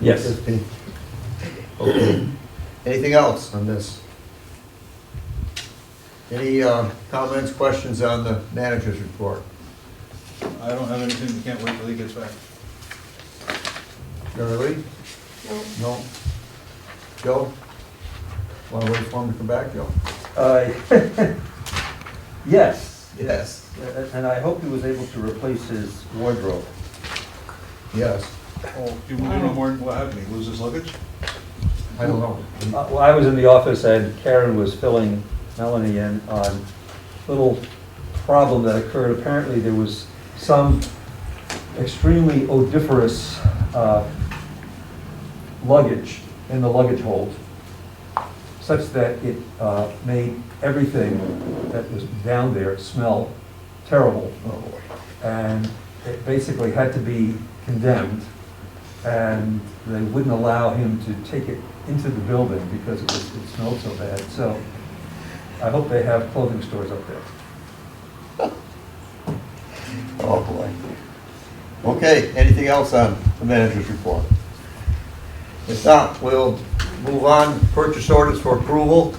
Yes. 15. Okay. Anything else on this? Any uh, comments, questions on the manager's report? I don't have anything, can't wait till he gets back. Charlie? No. No? Joe? Want to wait for him to come back, Joe? Uh, Yes, Yes. and I hope he was able to replace his wardrobe. Yes. Oh, you want to know more, what happened, he lose his luggage? I don't know. Uh, Well, I was in the office and Karen was filling Melanie in on a little problem that occurred. Apparently, there was some extremely odoriferous uh, luggage in the luggage hold, such that it uh, made everything that was down there smell terrible. Oh. And it basically had to be condemned and they wouldn't allow him to take it into the building because it was, it smelled so bad. So I hope they have clothing stores up there. Oh, boy. Okay, anything else on the manager's report? If not, we'll move on, purchase orders for approval.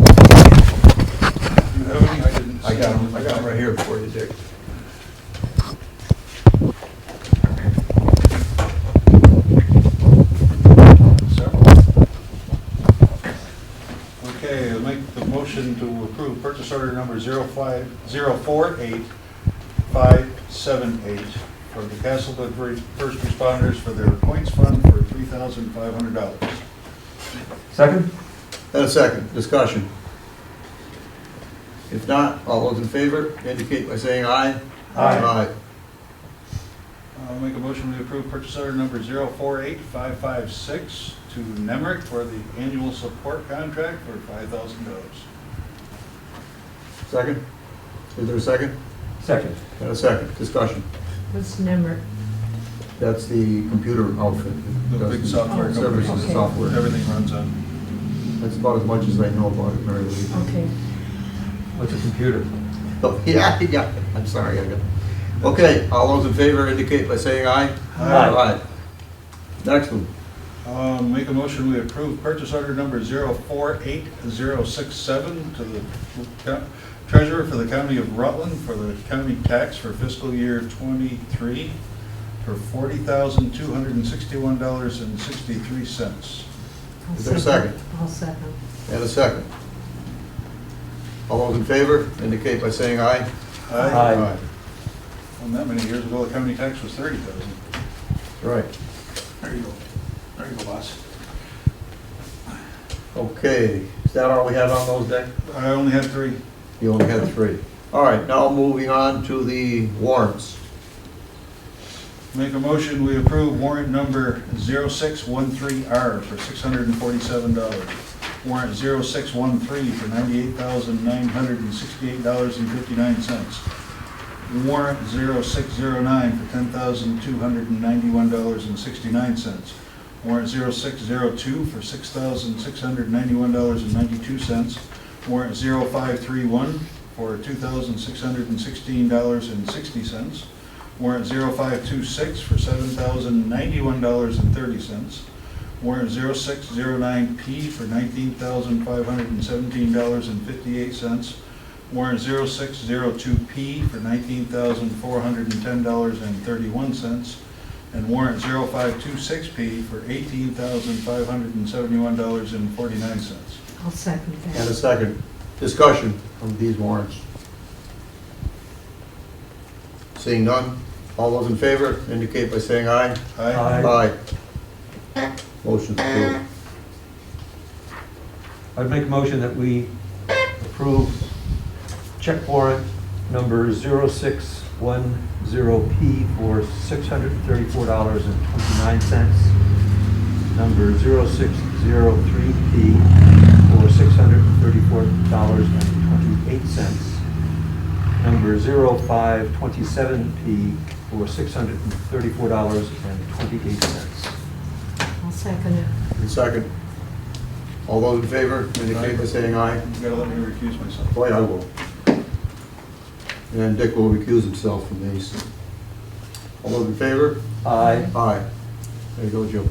You have any? I didn't. I got them, I got them right here for you, Dick. Several. Okay, I'll make the motion to approve purchase order number zero five, zero four eight, five seven eight for the Castleton First Responders for their points fund for three thousand five hundred dollars. Second? And a second, discussion. If not, all those in favor indicate by saying aye. Aye. I'll make a motion to approve purchase order number 048556 to Nemrick for the annual support contract for $5,000. Second? Is there a second? Second. And a second, discussion. What's Nemrick? That's the computer outfit. that The does big software company. Services and Okay. software. Everything runs on. That's about as much as I know about it, Mary Lee. Okay. What's a computer? Oh, Yeah, yeah, I'm sorry, I got, okay, all those in favor indicate by saying aye. Aye. Next one, Um, Make a motion we approve purchase order number 048067 to the co- treasurer for the county of Rutland for the county tax for fiscal year '23 for $40,261.63. I'll Is there a second? I'll second. and a second. All those in favor indicate by saying aye. Aye. Well, not many years ago, the county tax was thirty thousand. Right. There you go. There you go, boss. Okay, is that all we had on those, Dick? I only had three. You only had three. All right, now moving on to the warrants. Make a motion, we approve warrant number 0613R for $647. Warrant 0613 for $98,968.59. Warrant 0609 for $10,291.69. Warrant 0602 for $6,691.92. Warrant 0531 for $2,616.60. Warrant 0526 for $7,091.30. Warrant 0609P for $19,517.58. Warrant 0602P for $19,410.31. And warrant 0526P for $18,571.49. I'll second And a that. second, discussion of these warrants. Seeing none, all those in favor indicate by saying aye. Aye. Aye. Motion's approved. I'd make a motion that we approve check warrant number 0610P for $634.29. Number 0603P for $634.28. Number 0527P for $634.28. I'll second it. And second, all those in favor indicate by saying aye. You gotta let me recuse myself. Boy, I will. And Dick will recuse himself from these. All those in favor? Aye. Aye. There you go, Joe.